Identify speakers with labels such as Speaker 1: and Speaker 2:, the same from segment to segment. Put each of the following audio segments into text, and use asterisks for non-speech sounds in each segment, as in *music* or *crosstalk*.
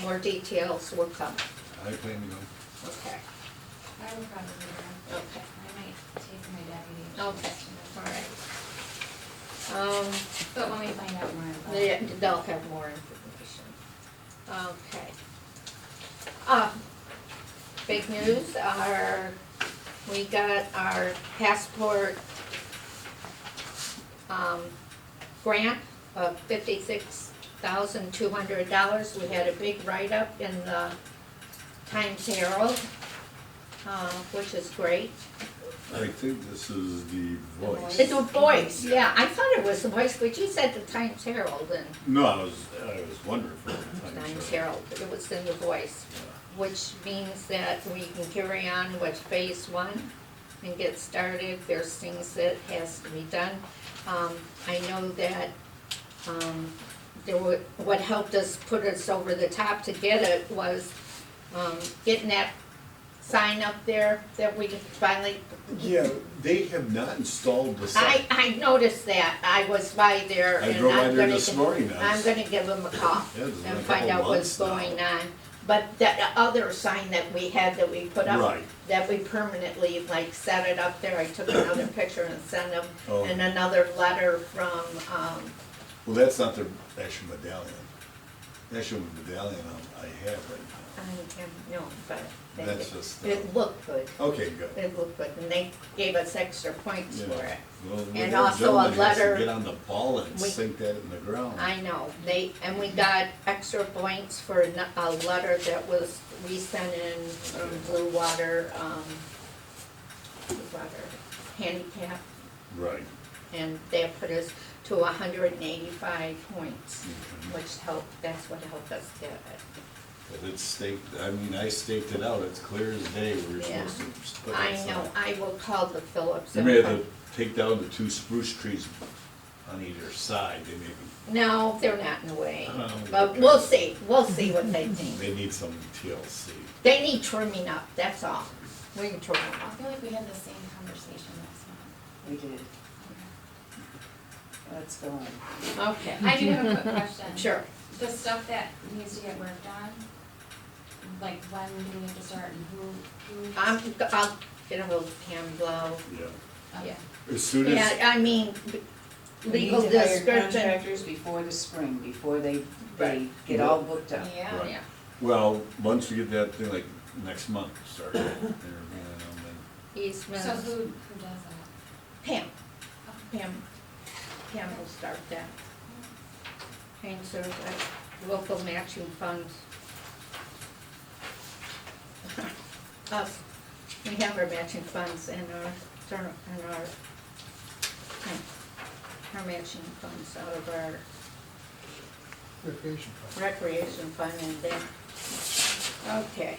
Speaker 1: more details will come.
Speaker 2: I plan to go.
Speaker 1: Okay,
Speaker 3: I will probably go.
Speaker 1: okay,
Speaker 3: I might take my deputy. and she
Speaker 1: Okay.
Speaker 3: has to
Speaker 1: all
Speaker 3: know.
Speaker 1: right. Um,
Speaker 3: But when we find out more about it.
Speaker 1: they- they'll have more information. Okay. Uh, big news, our, we got our passport, um, grant of fifty-six thousand two hundred dollars. We had a big write-up in the Times Herald, uh, which is great.
Speaker 2: I think this is the voice.
Speaker 1: It's a voice, yeah, I thought it was the voice, but you said the Times Herald and
Speaker 2: No, I was, I was wondering for a time.
Speaker 1: Times
Speaker 2: so-
Speaker 1: Herald, it was in the voice, which means that we can carry on with phase one and get started, there's things that has to be done. Um, I know that, um, there were, what helped us put us over the top to get it was, um, getting that sign up there that we finally
Speaker 2: Yeah, they have not installed the
Speaker 1: I,
Speaker 2: sign.
Speaker 1: I noticed that, I was by there
Speaker 2: I
Speaker 1: and
Speaker 2: drove by
Speaker 1: I'm
Speaker 2: there
Speaker 1: gonna,
Speaker 2: this
Speaker 1: gi-
Speaker 2: morning. I
Speaker 1: I'm
Speaker 2: was-
Speaker 1: gonna give them a call
Speaker 2: Yeah, there's been
Speaker 1: and
Speaker 2: a
Speaker 1: find
Speaker 2: couple
Speaker 1: out what's
Speaker 2: months now.
Speaker 1: going on. But that other sign that we had that we put up,
Speaker 2: Right.
Speaker 1: that we permanently like set it up there, I took
Speaker 2: *coughs*
Speaker 1: another picture and sent them,
Speaker 2: Oh.
Speaker 1: and another letter from, um,
Speaker 2: Well, that's not their actual medallion. The Actual medallion I- I have right
Speaker 1: I can't, no, but. they-
Speaker 2: That's just, uh,
Speaker 1: It looked good,
Speaker 2: now. Okay, good.
Speaker 1: it looked good, and they gave us extra points
Speaker 2: Yeah.
Speaker 1: for it.
Speaker 2: Well,
Speaker 1: And
Speaker 2: that
Speaker 1: also a
Speaker 2: gentleman has to
Speaker 1: letter-
Speaker 2: Get on the ball and
Speaker 1: We-
Speaker 2: sink that in the ground.
Speaker 1: I know, they, and we got extra points for a n- a letter that was, we sent in from Blue Water, um, Blue Water Handicap,
Speaker 2: Right.
Speaker 1: and that put us to hundred and eighty-five points,
Speaker 2: Mhm.
Speaker 1: which helped, that's what helped us get it.
Speaker 2: But it's staked, I mean, I staked it out, it's clear as day, we we're
Speaker 1: Yeah.
Speaker 2: supposed to put that
Speaker 1: I
Speaker 2: sign.
Speaker 1: know, I will call the Phillips.
Speaker 2: You
Speaker 1: and
Speaker 2: may have
Speaker 1: find-
Speaker 2: to take down the two spruce trees on either side, they may,
Speaker 1: No, they're not in the way,
Speaker 2: Oh,
Speaker 1: but
Speaker 2: okay.
Speaker 1: we'll see, we'll see what they
Speaker 2: *laughs*
Speaker 1: think.
Speaker 2: they need some TLC.
Speaker 1: They need trimming up, that's all, we can trim them
Speaker 3: I
Speaker 1: up.
Speaker 3: feel like we had the same conversation
Speaker 1: *laughs*
Speaker 3: last month.
Speaker 4: We did. Let's go on.
Speaker 1: Okay,
Speaker 3: I do have a quick
Speaker 1: *laughs*
Speaker 3: question.
Speaker 1: sure.
Speaker 3: The stuff that needs to get worked on, like when do we have to start and who, who?
Speaker 1: I'm, I'll get a hold of Pam Blow.
Speaker 2: Yeah.
Speaker 3: Okay.
Speaker 2: As soon
Speaker 1: Yeah,
Speaker 2: as,
Speaker 1: I mean,
Speaker 4: We need
Speaker 1: legal
Speaker 4: to hire
Speaker 1: description.
Speaker 4: Contractors before the spring, before they, they
Speaker 1: Right.
Speaker 4: get all booked up.
Speaker 3: Yeah,
Speaker 2: Right.
Speaker 3: yeah.
Speaker 2: well, once you get that thing, like, next month, *laughs* start, it, and everything, and then
Speaker 3: So
Speaker 1: Eastman's,
Speaker 3: who, who does that?
Speaker 1: uh, Pam,
Speaker 3: Okay.
Speaker 1: Pam, Pam will start that. Pam serves at local matching funds. Us, we have our matching funds and our, turn- and our, hmm, our matching funds out of our
Speaker 5: Recreation fund.
Speaker 1: recreation fund and then, okay.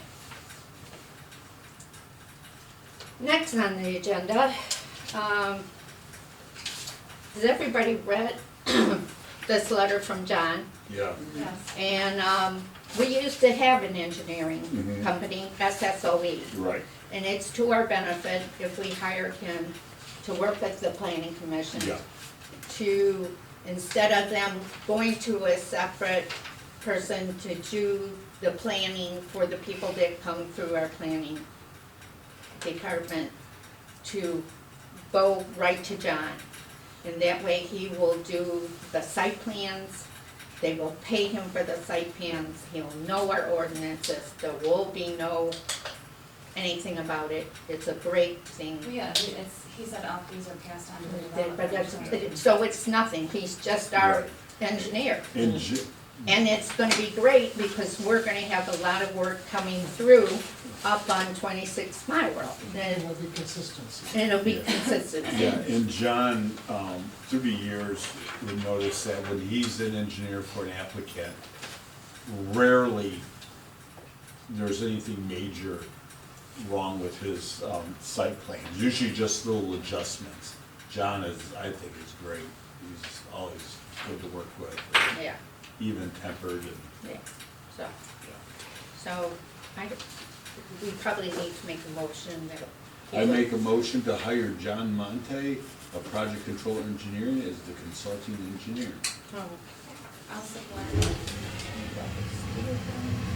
Speaker 1: Next on the agenda, um, has everybody read *clears throat* this letter from John?
Speaker 2: Yeah,
Speaker 3: Yes.
Speaker 1: And, um, we used to have an engineering
Speaker 2: Mhm.
Speaker 1: company, SSOE.
Speaker 2: right.
Speaker 1: E. And it's to our benefit if we hired him to work with the planning commission
Speaker 2: Yeah,
Speaker 1: to, instead of them going to a separate person to do the planning for the people that come through our planning department, to go right to John. And that way he will do the site plans, they will pay him for the site plans, he'll know our ordinances, there will be no anything about it, it's a great thing.
Speaker 3: Well, Yeah, he- it's, he said all these are passed on to the
Speaker 1: That- But
Speaker 3: developer.
Speaker 1: that's, so it's nothing, he's just our
Speaker 2: Right.
Speaker 1: engineer.
Speaker 2: and Ji-
Speaker 1: And it's gonna be great because we're gonna have a lot of work coming through up on twenty-six mile Road.
Speaker 5: It
Speaker 1: And
Speaker 5: will be consistency.
Speaker 1: and it'll be
Speaker 2: Yeah.
Speaker 1: consistent.
Speaker 2: Yeah, and John, um, through the years, we noticed that when he's an engineer for an applicant, rarely there's anything major wrong with his, um, site plan. Usually just little adjustments. John is, I think, is great. He's always good to work with,
Speaker 1: Yeah,
Speaker 2: even tempered and,
Speaker 1: yeah, so,
Speaker 2: yeah.
Speaker 1: so I, we probably need to make a motion that.
Speaker 2: I make a motion to hire John Monte, a project control engineer, as the consulting engineer.
Speaker 1: Oh.
Speaker 3: I'll support.